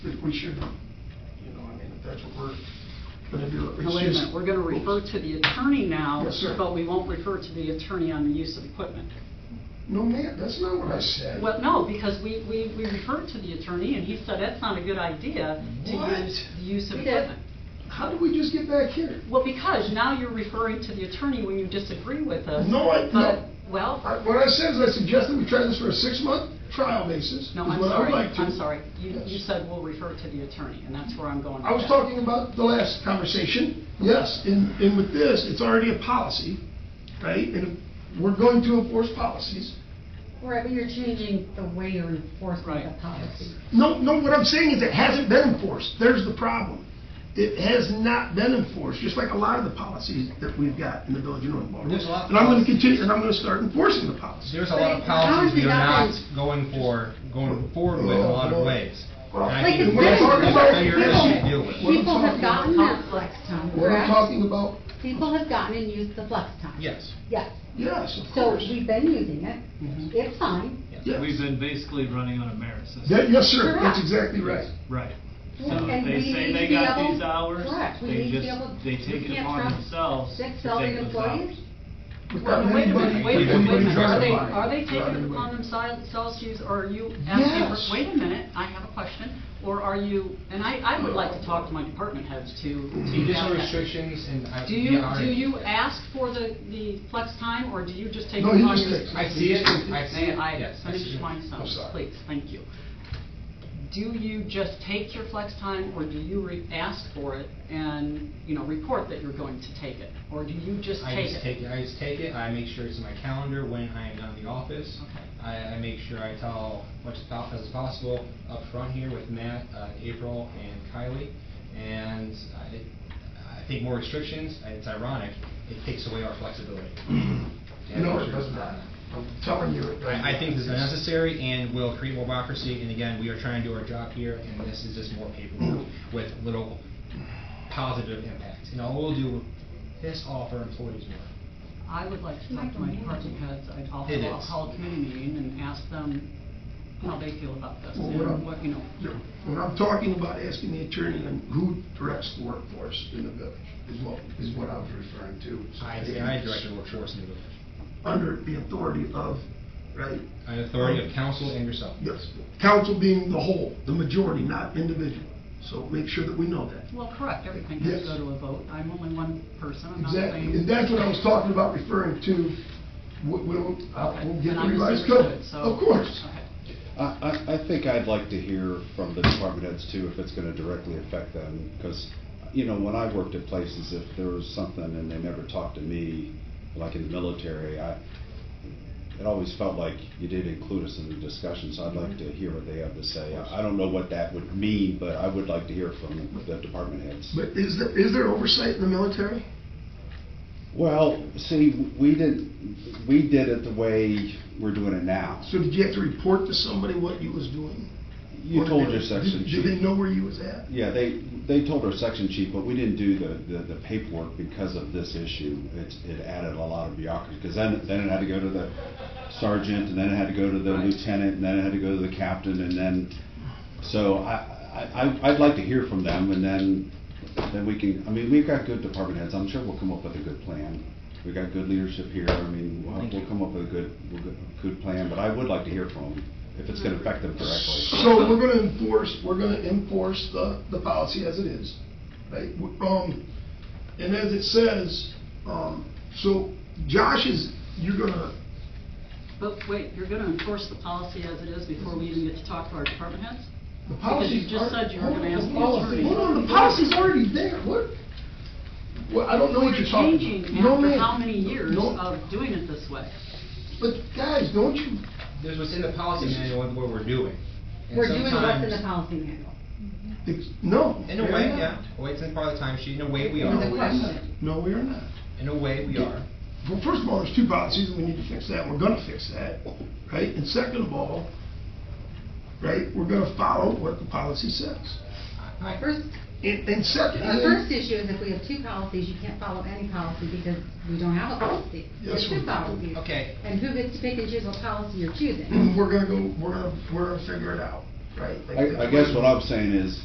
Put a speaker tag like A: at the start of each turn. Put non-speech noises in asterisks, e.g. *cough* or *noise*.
A: we should, you know, I mean, if that's what we're, but if you're.
B: Now, wait a minute, we're gonna refer to the attorney now.
A: Yes, sir.
B: But we won't refer to the attorney on the use of equipment.
A: No, ma'am, that's not what I said.
B: Well, no, because we, we, we referred to the attorney and he said that's not a good idea to
A: What?
B: use the use of
A: We did.
B: equipment.
A: How did we just get back here?
B: Well, because now you're referring to the attorney when you disagree with us.
A: No, I- no.
B: But, well,
A: I- What I said is I suggested we try this for a six-month trial basis.
B: no,
A: is
B: I'm
A: what I would
B: sorry,
A: like to.
B: I'm sorry. You, you
A: Yes.
B: said we'll refer to the attorney, and that's where I'm going with
A: I was
B: that.
A: talking about the last conversation, yes, and, and with this, it's already a policy, right? And if we're going to enforce policies.
C: Right, but you're changing the way you're enforcing the
B: Right.
C: policy.
A: No, no, what I'm saying is it hasn't been enforced, there's the problem. It has not been enforced, just like a lot of the policies that we've got in the village of North Baltimore.
D: There's a lot of
A: And I'm gonna
D: policies.
A: continue, and I'm gonna start enforcing the policy.
D: There's a lot of policies we are not going for, going forward with in a lot of ways. And I
C: Like
D: think
C: it's
D: that's
C: been-
D: a bigger issue to deal with.
A: What I'm
C: People
A: talking about-
C: have gotten that flex time,
A: What I'm
C: correct?
A: talking about,
C: People have gotten and used the flex time.
D: Yes.
C: Yes,
A: yes, of
C: so
A: course.
C: we've been using it, it's fine.
A: Yes.
E: We've been basically running on a merit system.
A: Yeah, yes, sir, that's
C: Correct.
A: exactly right.
E: Right. So
C: And
E: if
C: we
E: they say
C: need to
E: they
C: be
E: got
C: able-
E: these hours,
C: Correct, we
E: they
C: need to be
E: just-
C: able-
E: they
C: we
E: take it
C: can't
E: upon
C: trust
E: themselves
C: sick
E: to
C: salaried
E: take those
C: employees.
B: Well, wait a minute, wait a minute, wait a minute. Are they, are they
A: Right
B: taking it
A: away.
B: upon themselves to use, or are you asking,
A: Yes.
B: for- wait a minute, I have a question, or are you, and I, I would like to talk to my department heads to. to
D: Additional
B: have that.
D: restrictions and I.
B: Do
D: be
B: you,
D: honest.
B: do you ask for the, the flex time, or do you just take it
A: No, he
B: upon
A: just
B: yourself?
A: takes it.
D: I see it, I see
B: May
D: it,
B: I
D: yes. I see
B: finish
D: it.
B: my
A: I'm
B: sentence,
A: sorry.
B: please? Thank you. Do you just take your flex time, or do you re- ask for it and, you know, report that you're going to take it? Or do you just
D: I
B: take
D: just
B: it?
D: take it, I just take it, I make sure it's in my calendar when I am done in the office.
B: Okay.
D: I, I make sure I tell much as po- as possible up front here with Matt, uh, April, and Kylie. And I, I think more restrictions, it's ironic, it takes away our flexibility.
A: *clears throat* You know, it does not. I'm telling you. it
D: I I think this is
A: does not.
D: unnecessary and will create more bureaucracy, and again, we are trying to do our job here, and this is just more paperwork with little positive impact. And all we'll do, piss off our employees more.
B: I would like to talk to my department heads, I'd also,
D: It
B: I'll
D: is.
B: call a committee meeting and ask them how they feel about this,
A: Well, what
B: and
A: I'm-
B: what, you know.
A: You know, When I'm talking about asking the attorney and who directs the workforce in the village is what, is what I was referring to.
D: I, I direct the workforce in the village.
A: Under the authority of, right?
D: An authority of council and yourself.
A: Yes, council being the whole, the majority, not individual. So make sure that we know that.
B: Well, correct, everything has to
A: Yes.
B: go to a vote, I'm only one person, I'm not saying.
A: Exactly, and that's what I was talking about referring to, we'll, we'll I'll-
B: Okay,
A: we'll get
B: then
A: the
B: I
A: revised
B: misunderstood,
A: code.
B: so-
A: Of course.
B: Okay.
F: I, I, I think I'd like to hear from the department heads too, if it's gonna directly affect them, because, you know, when I worked at places, if there was something and they never talked to me, like in the military, I, it always felt like you did include us in the discussion, so I'd like
A: Mm-hmm.
F: to hear what they have to say. I I don't know what that would mean, but I would like to hear from the- the department heads.
A: But is there, is there oversight in the military?
F: Well, see, we didn't, we did it the way we're doing it now.
A: So did you have to report to somebody what you was doing?
F: You
A: Or
F: told
A: did-
F: your section
A: did-
F: chief.
A: Did they know where you was at?
F: Yeah, they, they told our section chief, but we didn't do the, the- the paperwork because of this issue. It, it added a lot of bureaucracy, because then, then it had to go to the sergeant, and then it had to go to the lieutenant, and then it had to go to the captain, and then, so I, I- I, I'd like to hear from them, and then, then we can, I mean, we've got good department heads, I'm sure we'll come up with a good plan. We've got good leadership here, I mean, we'll, we'll come up with a good, we'll go- good plan, but I would like to hear from them, if it's gonna affect them directly.
A: So we're gonna enforce, we're gonna enforce the, the policy as it is, right? W- Um, and as it says, um, so Josh is, you're gonna,
B: But wait, you're gonna enforce the policy as it is before we even get to talk to our department heads?
A: the
B: Because you
A: policy's.
B: just
A: alre-
B: said you were gonna ask the
A: Hold on,
B: attorney.
A: Hold on, the policy's already there, what? Well, I don't know what
B: We're
A: you're talking
B: changing
A: about. No,
B: after
A: ma'am.
B: how many years
A: No,
B: of doing it this way?
A: But guys, don't you,
D: There's what's in the policy manual and what we're doing. And
C: We're doing what's in the
D: sometimes-
C: policy manual.
A: it's, no.
D: In a
A: we're
D: way,
A: not.
D: yeah, well, it's in part of the time sheet, in a way we
A: No,
C: It's a
D: are,
A: we are not.
C: question.
A: No, we are not.
D: in a way we are.
A: Well, first of all, there's two policies, and we need to fix that, and we're gonna fix that, right? And second of all, right, we're gonna follow what the policy says.
C: My first,
A: And, and second,
C: my first issue is if we have two policies, you can't follow any policy because we don't have a policy. There's
A: Yes, we
C: two
A: do.
C: policies.
D: Okay.
C: And who gets to pick and choose what policy you're choosing?
A: we're gonna go, we're gonna, we're gonna figure it out, right? Like,
F: I, I guess what I'm saying is,